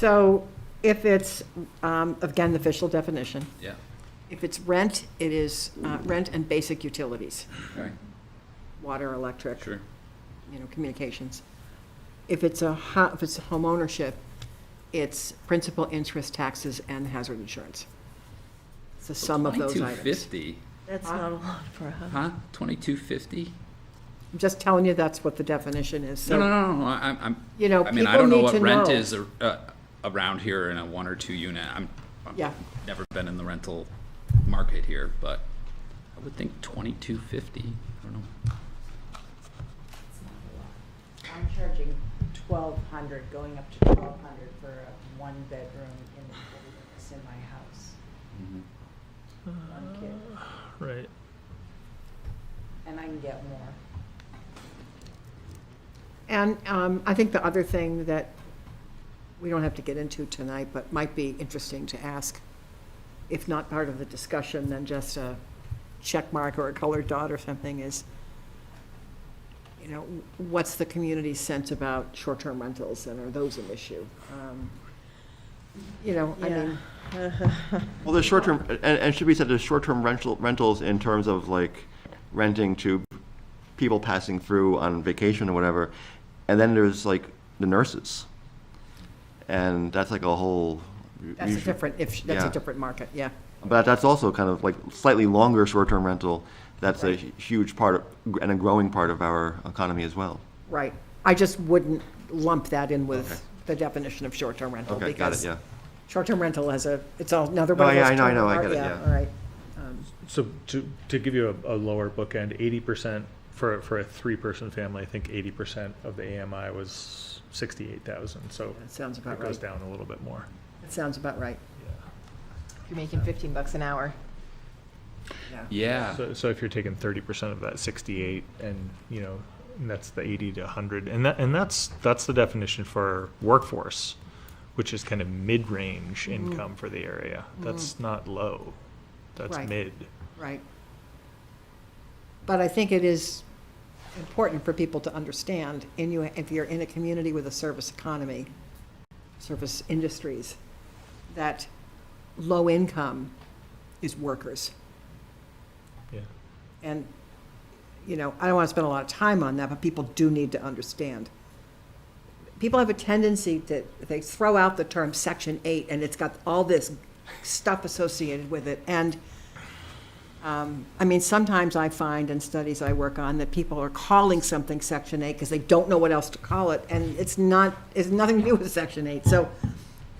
So if it's, um, again, the official definition, Yeah, if it's rent, it is uh, rent and basic utilities, okay, water, electric, sure. you know, communications. If it's a, ho- if it's home ownership, it's principal, interest, taxes, and hazard insurance. It's the sum of those Twenty-two items. fifty, That's Huh? not a lot for a house. huh? Twenty-two fifty? I'm just telling you, that's what the definition is, No, no, so, no, no, I- I'm, I'm, you know, I mean, people I don't know need what to rent know. is ar- uh, around here in a one or two unit. I'm, Yeah. I've never been in the rental market here, but I would think twenty-two fifty, I don't know. I'm charging twelve hundred, going up to twelve hundred for a one bedroom in the, that's in my house, one kid, Right. and I can get more. And um, I think the other thing that we don't have to get into tonight, but might be interesting to ask, if not part of the discussion, then just a check mark or a colored dot or something is, you know, what's the community's sense about short-term rentals and are those an issue? Um, You know, I mean, Well, there's short-term, and, and should be said, there's short-term rental, rentals in terms of like renting to people passing through on vacation or whatever. And then there's like the nurses. And that's like a whole. that's a different, if, that's a Yeah. different market, yeah. But that's also kind of like slightly longer short-term rental. That's a hu- huge part of, and a growing part of our economy as well. Right. I just wouldn't lump that in with the definition of short-term rental. Okay, got it, because yeah. Short-term rental has a, it's all- another one No, of yeah, those. I know, I term- know, I get it, yeah. All right. Um, So to, to give you a, a lower bookend, eighty percent for, for a three-person family, I think eighty percent of the AMI was sixty-eight thousand, so That sounds about it goes right. down a little bit more. That sounds about right. You're making 15 bucks an hour. Yeah, Ah. So, so if you're taking thirty percent of that sixty-eight and, you know, and that's the eighty to hundred, and that, and that's, that's the definition for workforce, which is kind of mid-range Mm-hmm. income for the area. That's not low. That's Right. mid. Right. But I think it is important for people to understand, in you, if you're in a community with a service economy, service industries, that low income is workers. Yeah. And, you know, I don't want to spend a lot of time on that, but people do need to understand. People have a tendency to, they throw out the term Section 8, and it's got all this stuff associated with it. And, um, I mean, sometimes I find in studies I work on that people are calling something Section 8 because they don't know what else to call it, and it's not, it's nothing to do with Section 8. So,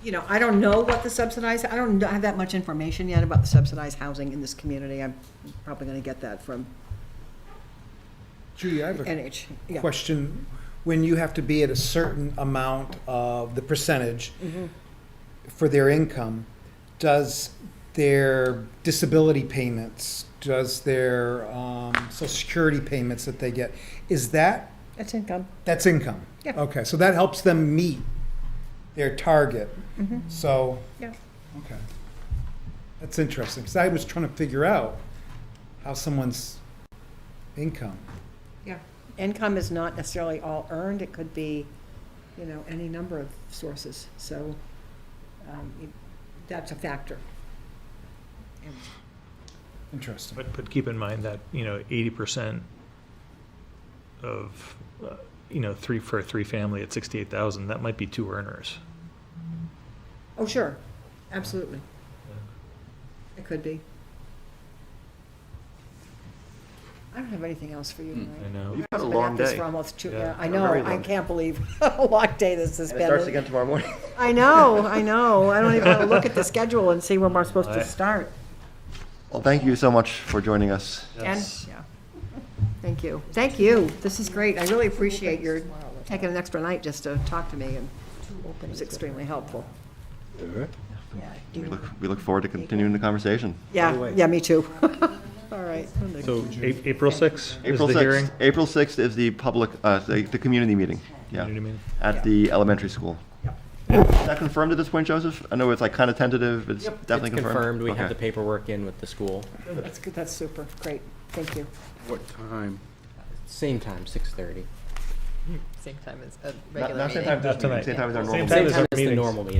you know, I don't know what the subsidized, I don't have that much information yet about the subsidized housing in this community. I'm probably going to get that from Judy, I have a NH, yeah. question. When you have to be at a certain amount of the percentage for their income, does their disability payments, does their um, social security payments that they get, is that, That's income. that's income? Yeah. Okay, so that helps them meet their target. So. Yeah. Okay. That's interesting, because I was trying to figure out how someone's income. Income is not necessarily all earned, it could be, you know, any number of sources, so um, it- that's a factor. Interesting. But, but keep in mind that, you know, eighty percent of, uh, you know, three, for a three-family at sixty-eight thousand, that might be two earners. Oh, sure, absolutely. It could be. I don't have anything else for you Hmm, tonight. I know. You've had a I've been at long this day. For almost two, Yeah. yeah, I A know, very I long day. can't believe how long day this has And been. it starts again tomorrow morning. I know, I know, I don't even want to look at the schedule and see when we're supposed to I- start. Well, thank you so much for joining us. And, yeah. Thank you. Thank you. This is great. I really appreciate your taking an extra night just to talk to me, and it was extremely helpful. We look, we look forward to continuing the conversation. Yeah, yeah, me too. All right. So A- April sixth is April the hearing? 6th, April 6th is the public, uh, the, the community meeting, yeah, Community meeting. at the elementary school. Is that confirmed at this point, Joseph? I know it's like kind of tentative, it's definitely It's confirmed? confirmed, we have Okay. the paperwork in with the school. That's good, that's super. Great. Thank you. what time? Same time, 6:30. Same time as a Not- regular Not meeting. same time as Not this meeting, tonight. same time as our Same normal time meeting. Same as our time as the meetings. normal meeting.